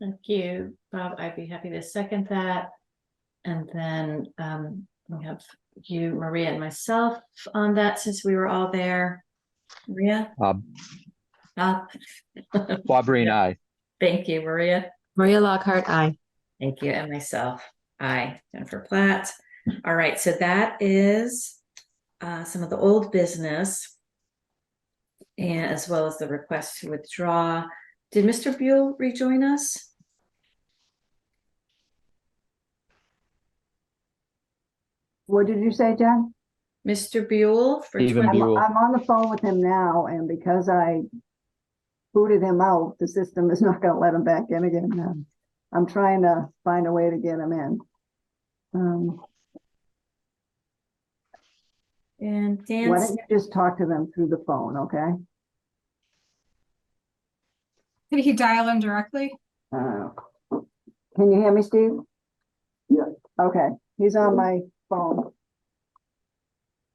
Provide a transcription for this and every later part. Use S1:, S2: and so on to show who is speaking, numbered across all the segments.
S1: Thank you, Bob. I'd be happy to second that. And then um we have you, Maria and myself on that since we were all there. Maria,
S2: Bob,
S1: up.
S2: Bob Breen, aye.
S1: Thank you, Maria.
S3: Maria Lockhart, aye.
S1: Thank you, and myself. I, Jennifer Platt. All right, so that is uh some of the old business. And as well as the request to withdraw. Did Mr. Buell rejoin us?
S4: What did you say, Jen?
S1: Mr. Buell? for
S2: Stephen
S1: 20
S4: I'm,
S2: Buell.
S4: I'm on the phone with him now, and because I booted him out, the system is not gonna let him back in again. Um, I'm trying to find a way to get him in. Um,
S1: And
S4: why
S1: Dan's
S4: don't you just talk to them through the phone, okay?
S5: Did he dial in directly?
S4: Uh, Can you hear me, Steve?
S6: Yeah.
S4: Okay, he's on my phone.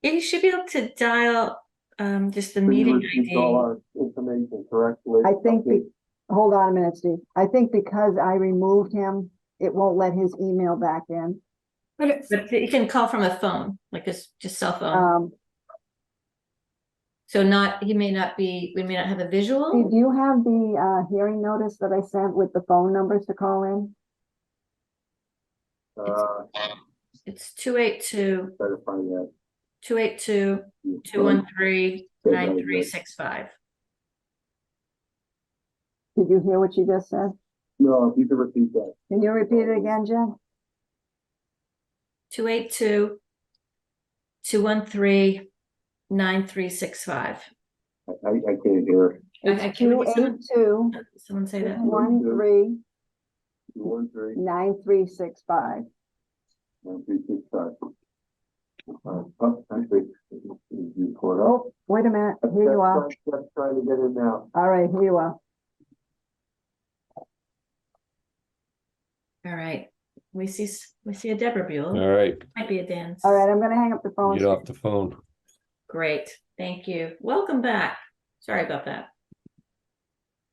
S1: Yeah, you should be able to dial um just the
S6: So you
S1: meeting
S6: received All
S1: ID.
S6: our information correctly.
S4: I think,
S6: Okay.
S4: be- hold on a minute, Steve. I think because I removed him, it won't let his email back in.
S5: But it's,
S1: But you can call from a phone, like a s- just cell phone.
S4: Um,
S1: So not, he may not be, we may not have a
S4: Steve,
S1: visual.
S4: do you have the uh hearing notice that I sent with the phone numbers to call in?
S6: Uh,
S1: It's two eight two,
S6: better find that.
S1: two eight two, two one three, nine three six five.
S4: Did you hear what she just said?
S6: No, if you could repeat that.
S4: Can you repeat it again, Jen?
S1: Two eight two, two one three, nine three six five.
S6: I, I I can't hear. it.
S1: Okay,
S4: It's
S1: can we
S4: two
S1: get
S4: eight
S1: someone,
S4: two,
S1: someone say that?
S4: one three,
S6: Two, one, three,
S4: nine three six five.
S6: nine, three, six, five. Uh, oh, I think you pulled up.
S4: Oh, wait a minute, here you are.
S6: Just- Just trying to get it now.
S4: All right, here you are. Mm-hmm.
S1: All right, we see, s- we see a Deborah Buell,
S7: All right,
S1: might be a Dan.
S4: All right, I'm gonna hang up the phone.
S7: get off the phone.
S1: Great, thank you. Welcome back. Sorry about that.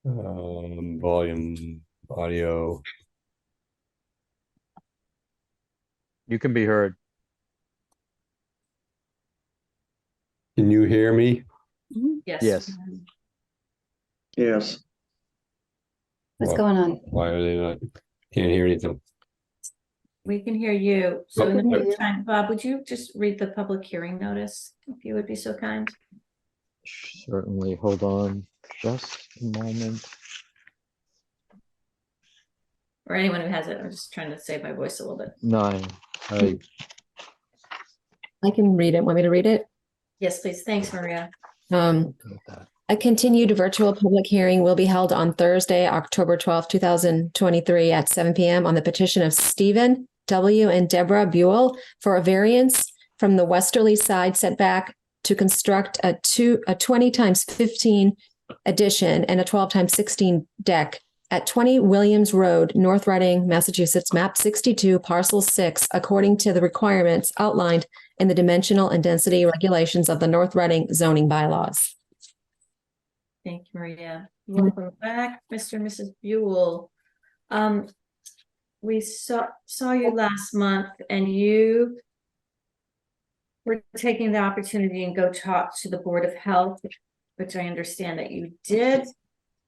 S7: Um, volume, audio.
S2: You can be heard.
S7: Can you hear me?
S1: Yes.
S2: Yes.
S1: um,
S6: Yes.
S3: What's
S7: Why-
S3: going on?
S7: Why are they not? Can't hear anything.
S1: We can hear you. So in the
S4: Okay.
S1: meantime, Bob, would you just read the public hearing notice, if you would be so kind?
S2: Certainly, hold on just a moment.
S1: Or anyone who has it, I'm just trying to save my voice a little bit.
S2: Nine, I,
S3: I can read it. Want me to read it?
S1: Yes, please. Thanks, Maria.
S3: Um, A continued virtual public hearing will be held on Thursday, October twelfth, two 2023 at seven PM on the petition of Stephen W. and Deborah Buell for a variance from the westerly side setback to construct a two, a 20 times 15 addition and a 12 times 16 deck at 20 Williams Road, North Reading, Massachusetts, map 62, parcel 6, according to the requirements outlined in the dimensional and density regulations of the North Reading zoning bylaws.
S1: Thank you, Maria. Welcome back, Mr. and Mrs. Buell. Um, we saw, saw you last month and you were taking the opportunity and go talk to the Board of Health, which I understand that you did.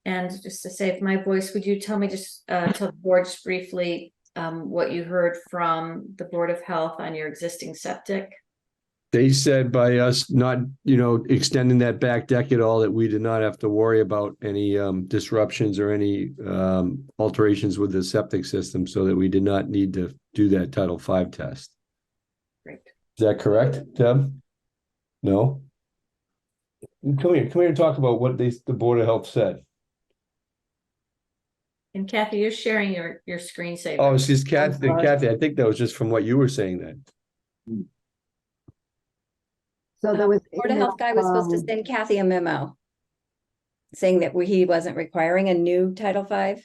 S1: And just to save my voice, would you tell me just, uh, tell the board just briefly, um, what you heard from the Board of Health on your existing septic?
S8: they said by us not, you know, extending that back deck at all, that we did not have to worry about any um disruptions or any um alterations with the septic system, so that we did not need to do that Title V test.
S1: Great.
S8: Is that correct, Deb? No? Come here, come here and talk about what they, the Board of Health said.
S1: And Kathy, you're sharing your, your screensaver.
S8: Oh, she's Kathy,
S4: sorry.
S8: Kathy, I think that was just from what you were saying then.
S4: So there was.
S9: Board of Health guy was supposed to
S4: um,
S9: send Kathy a memo saying that we- he wasn't requiring a new Title V.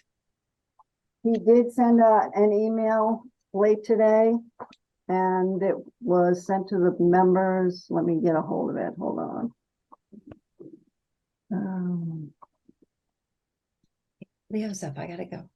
S4: He did send a, an email late today and it was sent to the members. Let me get a hold of it. Hold on. Um,
S9: Leo's up, I gotta go.